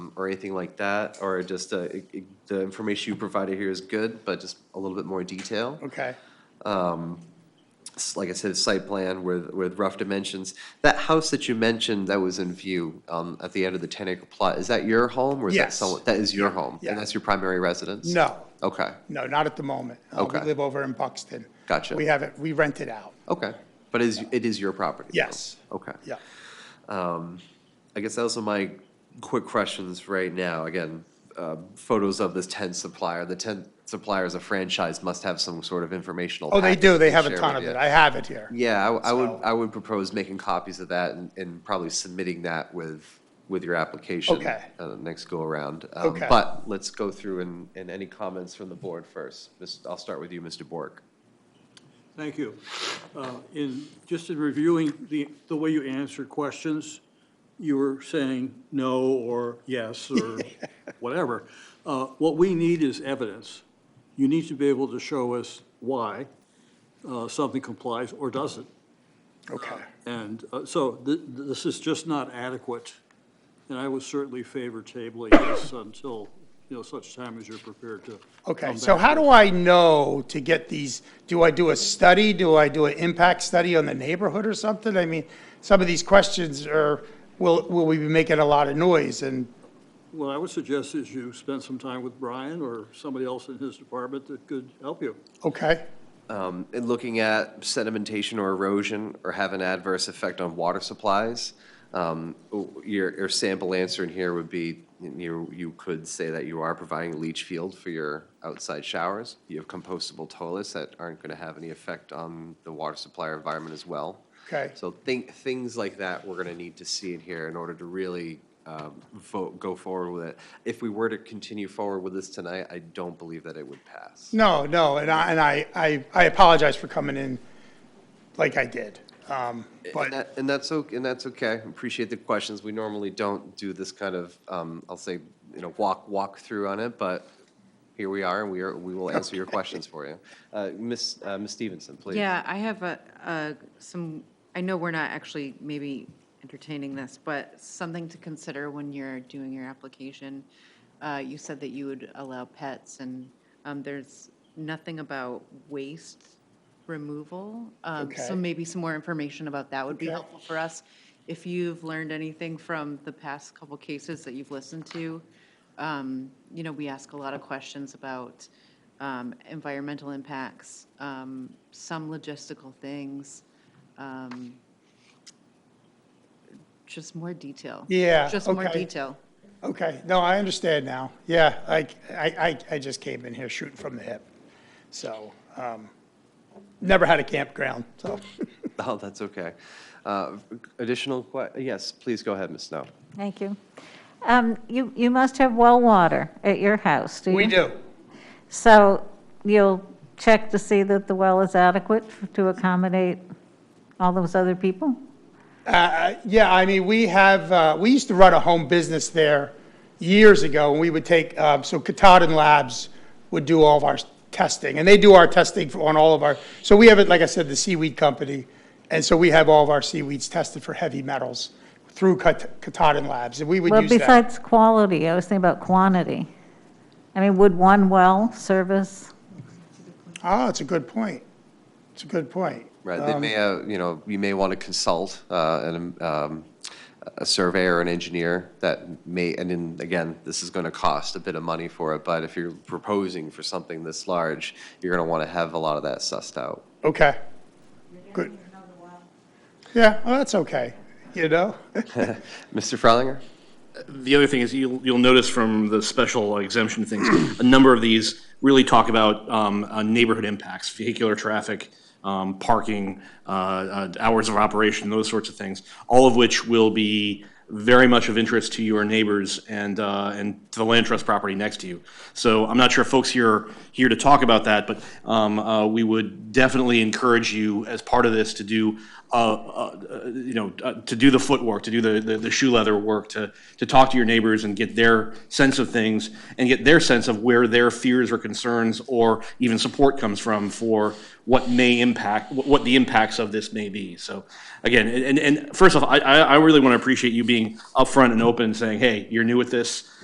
or anything like that, or just, uh, it- it- the information you provided here is good, but just a little bit more detail. Okay, S- Like I said, site plan with, with rough dimensions. That house that you mentioned that was in view, um, at the end of the ten acre plot, is that your home or is that Yes. someone? That is your home? yeah. And that's your primary residence? no, Okay, no, not at the moment. Uh, Okay. We live over in Buxton. Gotcha. We have it, we rent it out, okay. But is, it is your property? though? Yes. Okay. yeah. I guess those are my quick questions right now. Again, um, photos of this 10 supplier. The 10 supplier is a franchise, must have some sort of informational. Oh, they package do, they to have a share with ton Mm. of it, you. I have it here. Yeah, I, I would, So- I would propose making copies of that and, and probably submitting that with, with your application. Okay. uh, Next go around. Um, Okay. But let's go through and, and any comments from the board first. Miss- I'll start with you, Mr. Bork. Thank you. Uh, In, just in reviewing the, the way you answered questions, you were saying no or yes or whatever. Uh, What we need is evidence. You need to be able to show us why uh, something complies or doesn't. Okay, And uh, so th- th- this is just not adequate, and I would certainly favor tabling this until, you know, such time as you're prepared to. okay, come so back how with. do I know to get these, do I do a study? Do I do an impact study on the neighborhood or something? I mean, some of these questions are, will, will we be making a lot of noise and, What I would suggest is you spend some time with Brian or somebody else in his department that could help you. okay? um, and looking at sedimentation or erosion or have an adverse effect on water supplies. Um, Your, your sample answer in here would be, you, you could say that you are providing a leach field for your outside showers. You have compostable toilets that aren't going to have any effect on the water supply or environment as well. Okay. So think, things like that, we're going to need to see in here in order to really um, vote, go forward with it. If we were to continue forward with this tonight, I don't believe that it would pass. No, no, and I, and I, I I apologize for coming in like I did. Um, And But, that, and that's okay, and that's okay. Appreciate the questions. We normally don't do this kind of, um, I'll say, you know, walk, walk through on it, but here we are, and we are, we will answer your questions for you. Uh, Ms., uh, Ms. Stevenson, please. Yeah, I have a, a- some, I know we're not actually maybe entertaining this, but something to consider when you're doing your application. Uh, You said that you would allow pets, and um, there's nothing about waste removal. Um, Okay. So maybe some more information about that would be Okay. helpful for us. If you've learned anything from the past couple cases that you've listened to, um, you know, we ask a lot of questions about um, environmental impacts, um, some logistical things, um, just more detail. Yeah, Just more okay. detail. okay, no, I understand now. Yeah, I, I, I- I just came in here shooting from the hip. So, um, never had a campground, so. Oh, that's okay. Uh, additional que, yes, please go ahead, Ms. Snow. Thank you. Um, You, you must have well water at your house, do you? We do. So you'll check to see that the well is adequate f- to accommodate all those other people? Uh, Yeah, I mean, we have, uh, we used to run a home business there years ago, and we would take, uh, so Katahdin Labs would do all of our testing, and they do our testing for- on all of our, so we have it, like I said, the seaweed company, and so we have all of our seaweeds tested for heavy metals through Kat- Katahdin Labs, and we would Well, use that. besides quality, I was thinking about quantity. I mean, would one well service? Oh, it's a good point. It's a good point. Right, they may, uh, you know, you may want to consult uh, an, um, a surveyor, or an engineer that may, and then, again, this is going to cost a bit of money for it, but if you're proposing for something this large, you're going to want to have a lot of that sussed out. Okay. Good. Yeah, well, that's okay, you know? Mr. Freilinger? The other thing is you'll, you'll notice from the special exemption things, a number of these really talk about um, uh, neighborhood impacts, vehicular traffic, um, parking, uh, uh, hours of operation, those sorts of things, all of which will be very much of interest to your neighbors and, uh, and to the land trust property next to you. So I'm not sure if folks here are here to talk about that, but um, uh, we would definitely encourage you as part of this to do, uh, uh, you know, uh, to do the footwork, to do the, the- the shoe leather work, to, to talk to your neighbors and get their sense of things and get their sense of where their fears or concerns or even support comes from for what may impact, what- what the impacts of this may be. So again, and, and- and first off, I, I I really want to appreciate you being upfront and open, saying, hey, you're new at this.